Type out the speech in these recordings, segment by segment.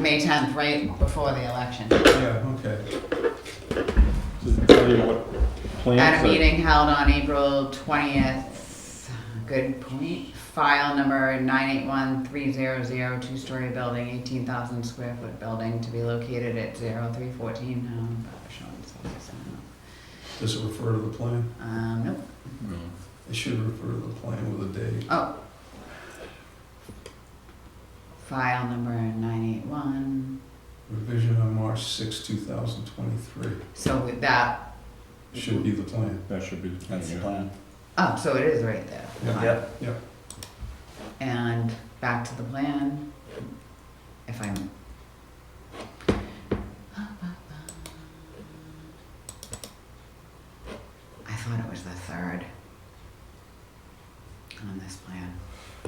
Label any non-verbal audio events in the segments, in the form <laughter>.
May 10th, right before the election. Yeah, okay. Does it tell you what plans? At a are- meeting held on April 20th, good point, file number 9813002, two-story building, 18,000 square foot building to be located at 0314 um, Buckshot, so it's, uh, Does it refer to the plan? Um, nope, It should refer to the plan with a date. oh. File number 981, Revision on March 6, 2023. so with that, Should be the plan. That should be the plan. That's the yeah. plan. oh, so it is right there. Yeah. Fine. Yeah. And back to the plan, if I'm. I thought it was the third on this plan.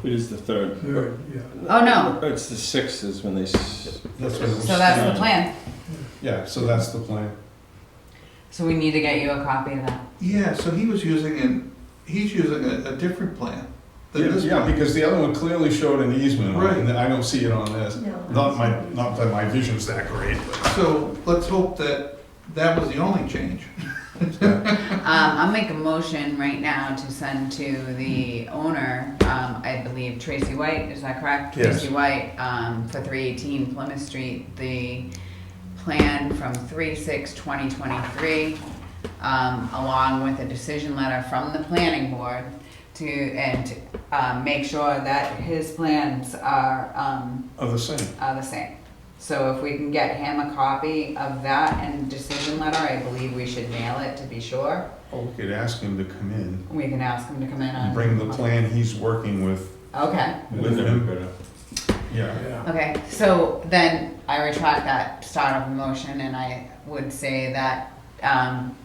It is the third. yeah. Oh, no, It's the sixth is when they, s- That's what it was. so that's the plan. Yeah, so that's the plan. So we need to get you a copy of that. Yeah, so he was using an, he's using a, a different plan than Yeah, this yeah, plan. because the other one clearly showed an easement on it, and I don't see it on this. No. Not my, not that my vision's that great, So let's hope that that was the only change. <laughs> but. uh, Um, I'll make a motion right now to send to the owner, um, I believe Tracy White, is that correct? Yes. Tracy White, um, for three eighteen Plymouth Street, the plan from three six twenty twenty-three, um, along with a decision letter from the planning board to, and, to, um, make sure that his plans are, um, Are the same. are the same. So if we can get him a copy of that and decision letter, I believe we should mail it to be sure. Or Oh, we could ask him to come in We can ask him to come in and on. bring the plan he's working with, Okay, with him. uh, Yeah. okay, so then I retract that start of a motion and I would say that, um,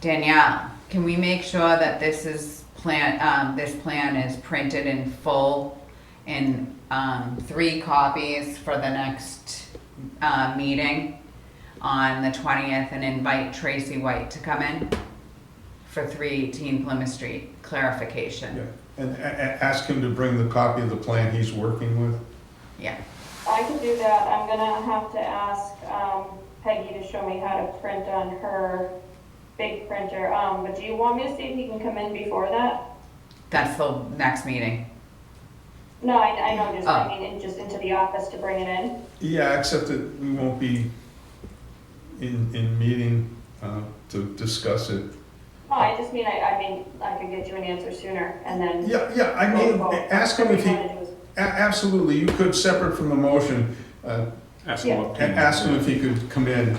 Danielle, can we make sure that this is plan, um, this plan is printed in full in, um, three copies for the next, uh, meeting on the twentieth and invite Tracy White to come in for three eighteen Plymouth Street clarification? Yeah, and a- a- ask him to bring the copy of the plan he's working with. Yeah, I can do that. I'm gonna have to ask um, Peggy to show me how to print on her big printer. Um, but do you want me to see if he can come in before that? that's the next meeting. No, I, I know, just, Oh. I mean, in- just into the office to bring it in. Yeah, except that we won't be in, in meeting uh, to discuss it. No, Oh, I just mean, I, I mean, I could get you an answer sooner and then. Yeah, yeah, I mean, ask him if he, a- Wanna do is- absolutely, you could, separate from the motion, uh, Ask him what. and ask him if he could come in.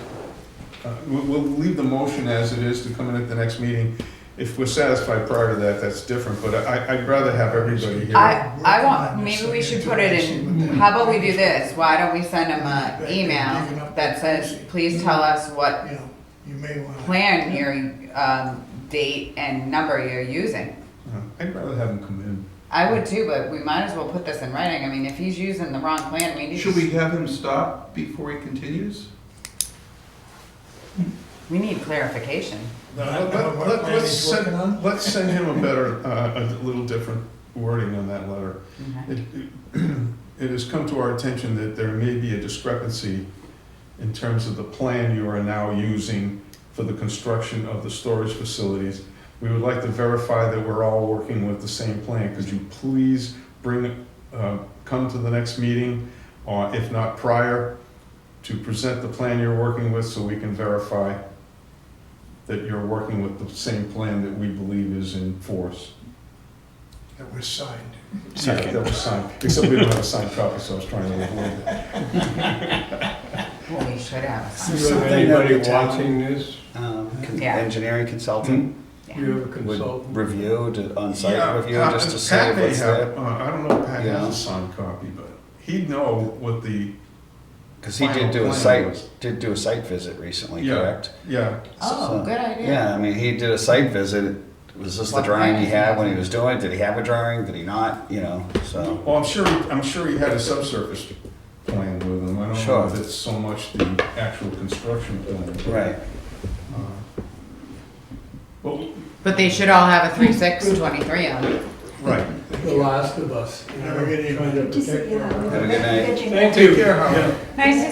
Uh, We'll, we'll leave the motion as it is to come in at the next meeting. If we're satisfied prior to that, that's different, but I, I'd rather have everybody here. I, I want, maybe we should put it in, how about we do this? Why don't we send him an email that says, please tell us what you know, you may want to. plan your, um, date and number you're using? Uh, I'd rather have him come in. I would too, but we might as well put this in writing. I mean, if he's using the wrong plan, we need Should we have him stop before he continues? We need clarification. Let- let- let- Let's send, let's send him a better, uh, a little different wording on that letter. Okay. It it has come to our attention that there may be a discrepancy in terms of the plan you are now using for the construction of the storage facilities. We would like to verify that we're all working with the same plan. Could you please bring, uh, come to the next meeting, or if not prior, to present the plan you're working with so we can verify that you're working with the same plan that we believe is in force? That was signed. Yeah, that was signed, except we don't have a signed copy, so I was trying to avoid <laughs> that. Well, we should have. a sign. Is there Something that anybody the town- watching this? Hmm? Um, con- Yeah. Engineering consultant Yeah. You have a Would consultant? review, to- Yeah, uh, on-site review, Pat- just to Pat say may what's have- there? uh, I don't know if Pat has Yeah. a signed copy, but he'd know what the, Because he final did do plan a site, was- did do a site visit recently, Yeah. correct? yeah, Oh, good idea. Yeah, I mean, he did a site visit. Was this the What drawing he plan? had when he was doing it? Did he have a drawing? Did he not? You know, so. well, I'm sure, he- I'm sure he had a subsurface plan with him, I don't know Sure. if it's so much the actual construction plan. Right. Uh, Well, But they should all have a three six twenty-three on it. right, The Last of Us. you know, Never get any- trying to Just, protect yeah. your- Have a good night. Thank Take care, Howard. Nice to